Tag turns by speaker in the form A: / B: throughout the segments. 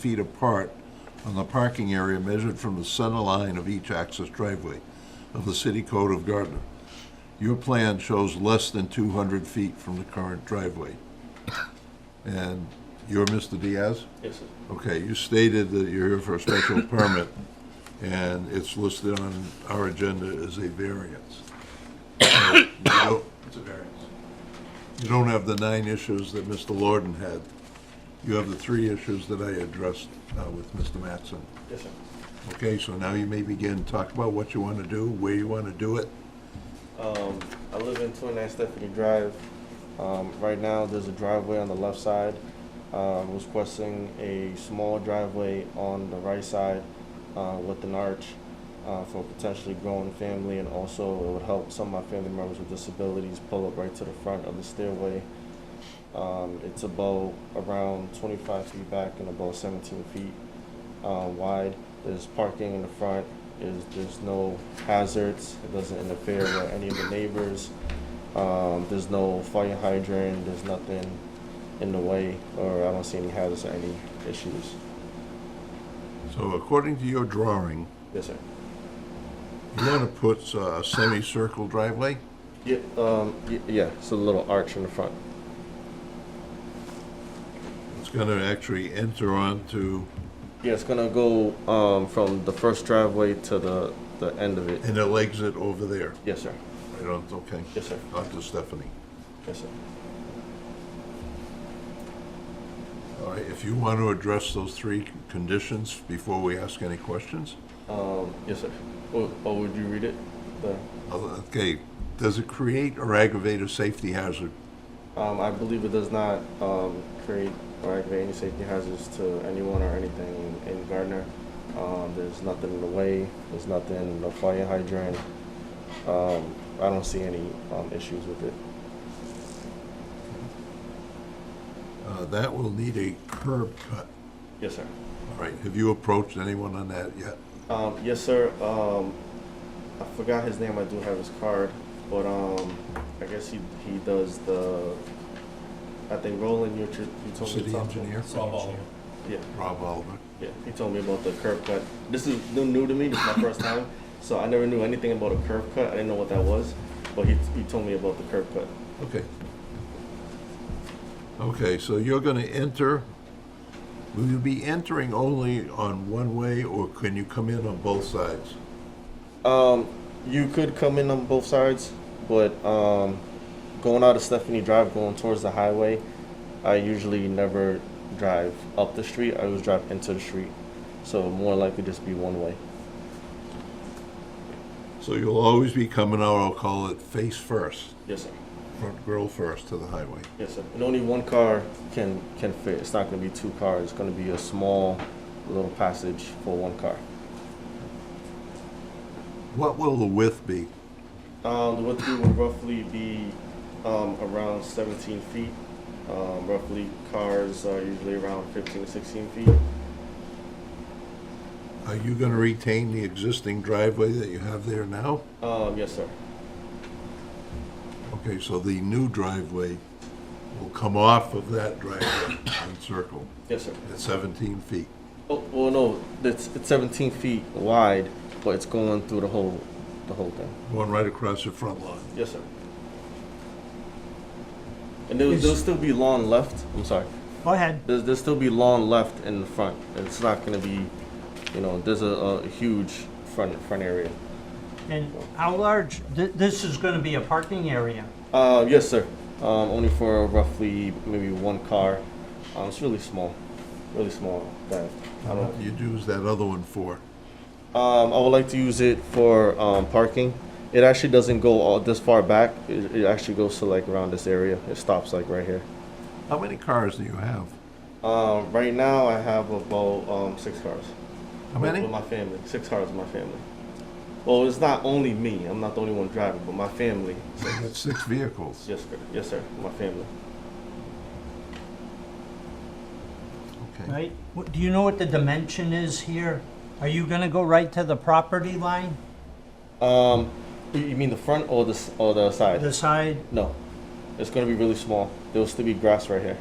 A: feet apart on the parking area measured from the center line of each access driveway of the city code of Gardner. Your plan shows less than two hundred feet from the current driveway. And you're Mr. Diaz?
B: Yes, sir.
A: Okay, you stated that you're here for a special permit, and it's listed on our agenda as a variance. So, you don't-
B: It's a variance.
A: You don't have the nine issues that Mr. Lorden had. You have the three issues that I addressed uh, with Mr. Mattson.
B: Yes, sir.
A: Okay, so now you may begin, talk about what you want to do, where you want to do it.
B: Um, I live in 29 Stephanie Drive. Um, right now, there's a driveway on the left side. Um, requesting a small driveway on the right side uh, with an arch uh, for potentially growing family, and also it would help some of my family members with disabilities pull up right to the front of the stairway. Um, it's about around 25 feet back and about 17 feet uh, wide. There's parking in the front. Is there's no hazards. It doesn't interfere with any of the neighbors. Um, there's no fire hydrant. There's nothing in the way, or I don't see any hazards or any issues.
A: So according to your drawing,
B: Yes, sir.
A: you want to put uh, a semicircle driveway?
B: Yeah. Um, y- yeah. It's a little arch in the front.
A: It's going to actually enter onto,
B: Yeah, it's gonna go um, from the first driveway to the the end of it.
A: and it'll exit over there,
B: Yes, sir.
A: right on, okay,
B: Yes, sir.
A: onto Stephanie.
B: Yes, sir.
A: All right, if you want to address those three conditions before we ask any questions?
B: Um, yes, sir. Or, or would you read it? The,
A: Okay, does it create or aggravate a safety hazard?
B: um, I believe it does not um, create or aggravate any safety hazards to anyone or anything in, in Gardner. Um, there's nothing in the way. There's nothing, no fire hydrant. Um, I don't see any um, issues with it.
A: Uh, That will need a curb cut.
B: Yes, sir.
A: All right, have you approached anyone on that yet?
B: Um, yes, sir. Um, I forgot his name. I do have his card, but um, I guess he he does the. I think Roland, you, you told me
A: City
B: to talk to him.
A: engineer?
B: Yeah.
A: Rob Oliver.
B: Yeah, he told me about the curb cut. This is new, new to me. This is my first time, so I never knew anything about a curb cut. I didn't know what that was, but he, he told me about the curb cut.
A: Okay. Okay, so you're going to enter, will you be entering only on one way, or can you come in on both sides?
B: Um, you could come in on both sides, but um, going out of Stephanie Drive, going towards the highway, I usually never drive up the street. I always drive into the street, so more likely just be one way.
A: So you'll always be coming out, I'll call it face first,
B: Yes, sir.
A: front grill first to the highway.
B: Yes, sir. And only one car can can fit. It's not going to be two cars. It's going to be a small little passage for one car.
A: What will the width be?
B: Um, the width would roughly be um, around 17 feet. Um, roughly, cars are usually around 15 to 16 feet.
A: Are you going to retain the existing driveway that you have there now?
B: Um, yes, sir.
A: Okay, so the new driveway will come off of that driveway and circle
B: Yes, sir.
A: at 17 feet.
B: Oh, well, no, it's, it's 17 feet wide, but it's going through the whole, the whole thing.
A: Going right across your front lawn.
B: Yes, sir. And there'll, there'll still be lawn left. I'm sorry.
C: Go ahead.
B: There's, there'll still be lawn left in the front. It's not going to be, you know, there's a, a huge front front area.
C: And how large, th- this is going to be a parking area.
B: Uh, yes, sir. Um, only for roughly maybe one car. Um, it's really small, really small. That I
A: What
B: don't.
A: do you use that other one for?
B: Um, I would like to use it for um, parking. It actually doesn't go all this far back. It, it actually goes to like around this area. It stops like right here.
A: How many cars do you have?
B: Um, right now, I have about um, six cars.
A: How
B: with-
A: many?
B: With my family, six cars with my family. Well, it's not only me. I'm not the only one driving, but my family.
A: You got Six vehicles.
B: Yes, sir. Yes, sir. My family.
A: Okay.
C: Right? What- Do you know what the dimension is here? Are you going to go right to the property line,
B: Um, you- you mean the front or the s- or the side?
C: the side?
B: No, it's gonna be really small. There will still be grass right here.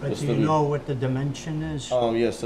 C: But
B: It's
C: do you
B: the-
C: know what the dimension is?
B: Um, yes,